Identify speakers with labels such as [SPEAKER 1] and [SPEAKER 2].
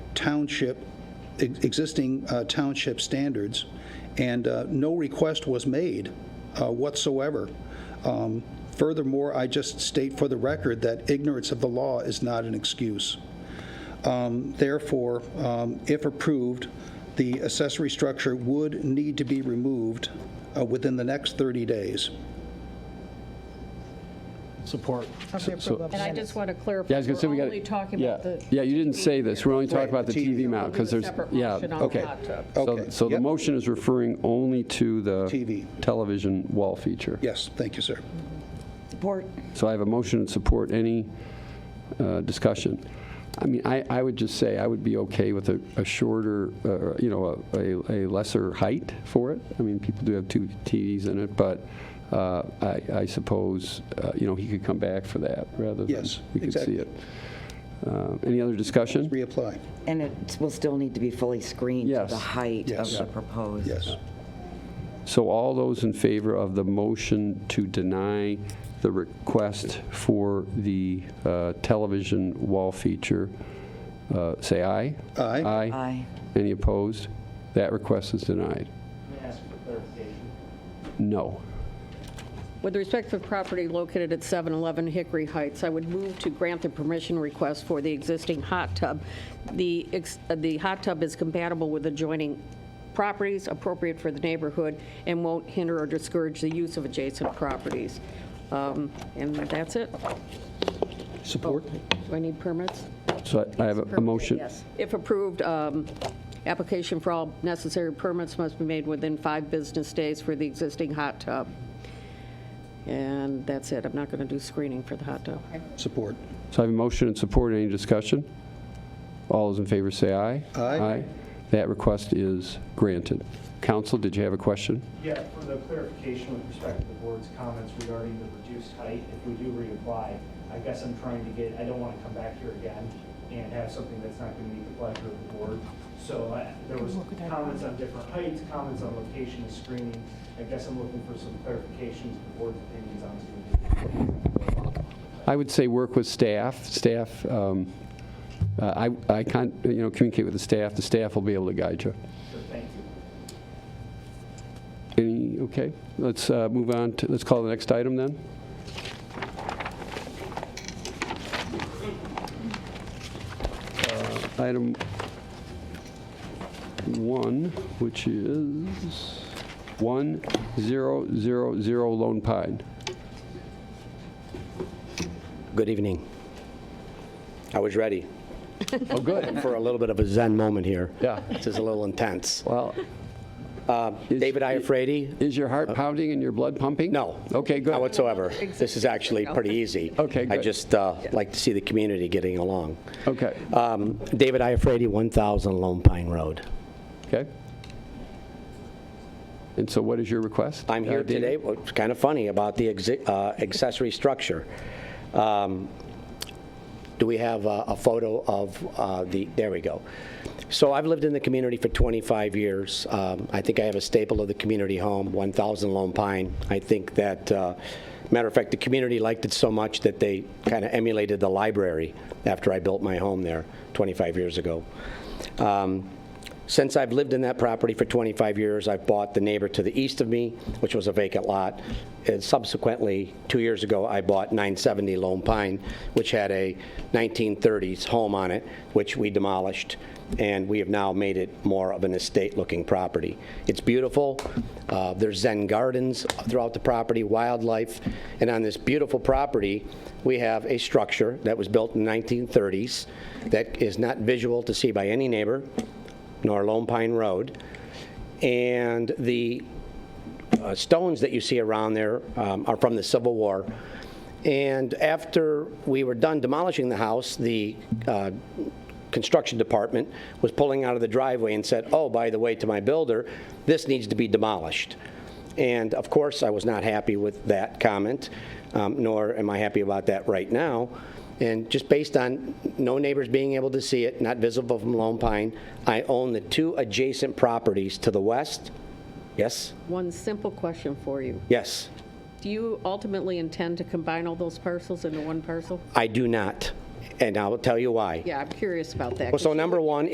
[SPEAKER 1] township, ex- existing uh, township standards, and uh, no request was made uh, whatsoever. Um, Furthermore, I just state for the record that ignorance of the law is not an excuse. Um, Therefore, um, if approved, the accessory structure would need to be removed uh, within the next 30 days.
[SPEAKER 2] Support.
[SPEAKER 3] Of the approval of
[SPEAKER 4] And I
[SPEAKER 3] minutes.
[SPEAKER 4] just want to clarify,
[SPEAKER 5] Yeah, I was gonna say we
[SPEAKER 4] we're
[SPEAKER 5] got.
[SPEAKER 4] only talking about the.
[SPEAKER 5] Yeah, you didn't say this. We're only talking
[SPEAKER 1] Right,
[SPEAKER 5] about the
[SPEAKER 1] the TV.
[SPEAKER 5] TV mount, because
[SPEAKER 4] We'll
[SPEAKER 5] there's,
[SPEAKER 4] do a separate
[SPEAKER 5] yeah.
[SPEAKER 4] motion on the
[SPEAKER 1] Okay.
[SPEAKER 4] hot tub.
[SPEAKER 5] So-
[SPEAKER 1] Okay,
[SPEAKER 5] So the
[SPEAKER 1] yep.
[SPEAKER 5] motion is referring only to the.
[SPEAKER 1] TV.
[SPEAKER 5] Television wall feature.
[SPEAKER 1] Yes, thank you, sir.
[SPEAKER 3] Support.
[SPEAKER 5] So I have a motion and support. Any uh, discussion? I mean, I, I would just say I would be okay with a, a shorter, uh, you know, a, a, a lesser height for it. I mean, people do have two TVs in it, but uh, I, I suppose, uh, you know, he could come back for that rather than
[SPEAKER 1] Yes,
[SPEAKER 5] we could
[SPEAKER 1] exactly.
[SPEAKER 5] see it. Uh, any other discussion?
[SPEAKER 1] Reapply,
[SPEAKER 6] And it will still need to be fully screened to
[SPEAKER 5] Yes.
[SPEAKER 6] the height of
[SPEAKER 1] Yes.
[SPEAKER 6] the proposed.
[SPEAKER 1] yes.
[SPEAKER 5] So all those in favor of the motion to deny the request for the uh, television wall feature, uh, say aye.
[SPEAKER 1] Aye.
[SPEAKER 5] Aye.
[SPEAKER 6] Aye.
[SPEAKER 5] Any opposed? That request is denied. No.
[SPEAKER 4] With respect to the property located at 711 Hickory Heights, I would move to grant the permission request for the existing hot tub. The, ex- uh, the hot tub is compatible with adjoining properties, appropriate for the neighborhood, and won't hinder or discourage the use of adjacent properties. Um, And that's it.
[SPEAKER 1] Support?
[SPEAKER 4] Do I need permits?
[SPEAKER 5] So I- I have a- a motion.
[SPEAKER 4] If approved, um, application for all necessary permits must be made within five business days for the existing hot tub. And that's it. I'm not going to do screening for the hot tub.
[SPEAKER 1] Support.
[SPEAKER 5] So I have a motion and support. Any discussion? All those in favor say aye.
[SPEAKER 1] Aye.
[SPEAKER 5] That request is granted. Counsel, did you have a question?
[SPEAKER 2] Yeah, for the clarification with respect to the board's comments regarding the reduced height, if we do reapply, I guess I'm trying to get, I don't want to come back here again and have something that's not going to meet the pleasure of the board. So I- there was comments on different heights, comments on location and screening. I guess I'm looking for some clarifications, the board's opinions on screening.
[SPEAKER 5] I would say work with staff. Staff, um, uh, I, I can't, you know, communicate with the staff. The staff will be able to guide you.
[SPEAKER 2] So thank you.
[SPEAKER 5] Any, okay, let's uh, move on to, let's call the next item then. Uh, Item one, which is 1000 Lone Pine.
[SPEAKER 7] Good evening. I was ready
[SPEAKER 5] Oh, good.
[SPEAKER 7] for a little bit of a zen moment here.
[SPEAKER 5] Yeah.
[SPEAKER 7] This is a little intense.
[SPEAKER 5] Well, Is-
[SPEAKER 7] David Iafredi?
[SPEAKER 5] is your heart pounding and your blood pumping?
[SPEAKER 7] No.
[SPEAKER 5] Okay, good.
[SPEAKER 7] Not whatsoever. This is actually pretty easy.
[SPEAKER 5] Okay,
[SPEAKER 7] I
[SPEAKER 5] good.
[SPEAKER 7] just uh, like to see the community getting along.
[SPEAKER 5] Okay,
[SPEAKER 7] Um, David Iafredi, 1,000 Lone Pine Road.
[SPEAKER 5] okay. And so what is your request?
[SPEAKER 7] I'm
[SPEAKER 5] uh,
[SPEAKER 7] here
[SPEAKER 5] David?
[SPEAKER 7] today, well, it's kind of funny, about the exi- uh, accessory structure. Um, Do we have a a photo of uh, the, there we go. So I've lived in the community for 25 years. Um, I think I have a staple of the community home, 1,000 Lone Pine. I think that, uh, matter of fact, the community liked it so much that they kind of emulated the library after I built my home there 25 years ago. Um, Since I've lived in that property for 25 years, I've bought the neighbor to the east of me, which was a vacant lot. And subsequently, two years ago, I bought 970 Lone Pine, which had a 1930s home on it, which we demolished, and we have now made it more of an estate-looking property. It's beautiful. Uh, There's Zen gardens throughout the property, wildlife, and on this beautiful property, we have a structure that was built in the 1930s that is not visual to see by any neighbor nor Lone Pine Road. And the uh, stones that you see around there um, are from the Civil War. And after we were done demolishing the house, the uh, construction department was pulling out of the driveway and said, oh, by the way, to my builder, this needs to be demolished. And of course, I was not happy with that comment, um, nor am I happy about that right now. And just based on no neighbors being able to see it, not visible from Lone Pine, I own the two adjacent properties to the west. Yes?
[SPEAKER 4] One simple question for you.
[SPEAKER 7] Yes,
[SPEAKER 4] Do you ultimately intend to combine all those parcels into one parcel?
[SPEAKER 7] I do not, and I will tell you why.
[SPEAKER 4] Yeah, I'm curious about that.
[SPEAKER 7] Well, so
[SPEAKER 4] 'cause you-
[SPEAKER 7] number one